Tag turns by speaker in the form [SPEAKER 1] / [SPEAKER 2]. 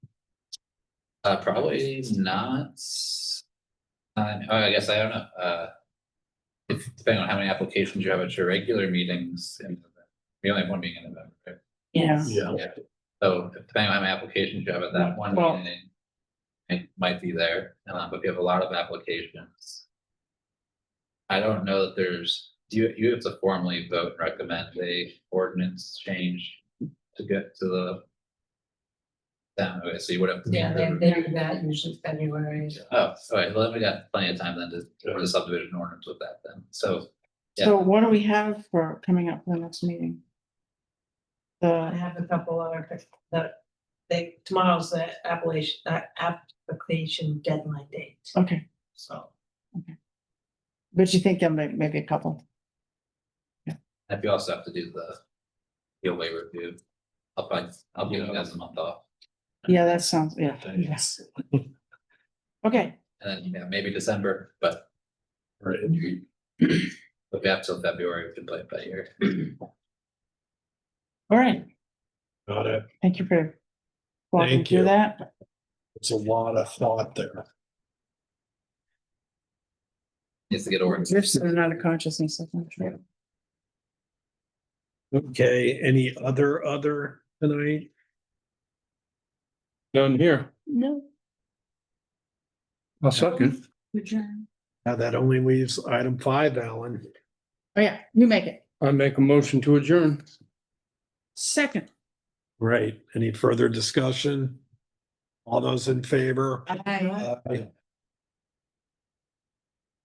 [SPEAKER 1] Uh, probably not. s- I, oh, I guess I don't know, uh. If, depending on how many applications you have at your regular meetings, in November. we only have one meeting in November, right?
[SPEAKER 2] Yeah.
[SPEAKER 3] Yeah,
[SPEAKER 1] So depending on how many applications you have at that one
[SPEAKER 2] Well-
[SPEAKER 1] meeting. It might be there, um, but if you have a lot of applications. I don't know that there's, do you, you have to formally vote and recommend a ordinance change to get to the. Down, okay, so you would have. to-
[SPEAKER 4] Yeah, they, they do that usually February.
[SPEAKER 1] Oh, sorry, well, then we got plenty of time then to, for the subdivision ordinance with that then, so, Yeah.
[SPEAKER 2] So what do we have for coming up for the next meeting?
[SPEAKER 4] I
[SPEAKER 2] The,
[SPEAKER 4] have a couple other, pic- that, they, tomorrow's the appellation, uh, application deadline date,
[SPEAKER 2] okay,
[SPEAKER 4] so.
[SPEAKER 2] but you think there may, maybe a couple,
[SPEAKER 1] and you also have to do the. Deal waiver review. I'll probably, I'll give you guys a month off,
[SPEAKER 2] yeah, that sounds, yeah, yes. Okay,
[SPEAKER 1] and then, yeah, maybe December, but
[SPEAKER 3] right.
[SPEAKER 1] if we have till February, we can play it by ear.
[SPEAKER 2] all right,
[SPEAKER 3] Got it.
[SPEAKER 2] thank you for walking
[SPEAKER 3] Thank
[SPEAKER 2] through
[SPEAKER 3] you.
[SPEAKER 2] that,
[SPEAKER 3] It's a lot of thought there.
[SPEAKER 1] Needs to get organized.
[SPEAKER 2] there's another consciousness, I'm sure.
[SPEAKER 3] Okay, any other, other tonight?
[SPEAKER 5] None here.
[SPEAKER 2] No.
[SPEAKER 5] I'll second.
[SPEAKER 2] Adjourn.
[SPEAKER 3] Now that only leaves item five, Alan.
[SPEAKER 2] Oh, yeah, you make it,
[SPEAKER 5] I make a motion to adjourn.
[SPEAKER 2] second.
[SPEAKER 3] Right, any further discussion? All those in favor?
[SPEAKER 2] Aye.
[SPEAKER 3] Aye.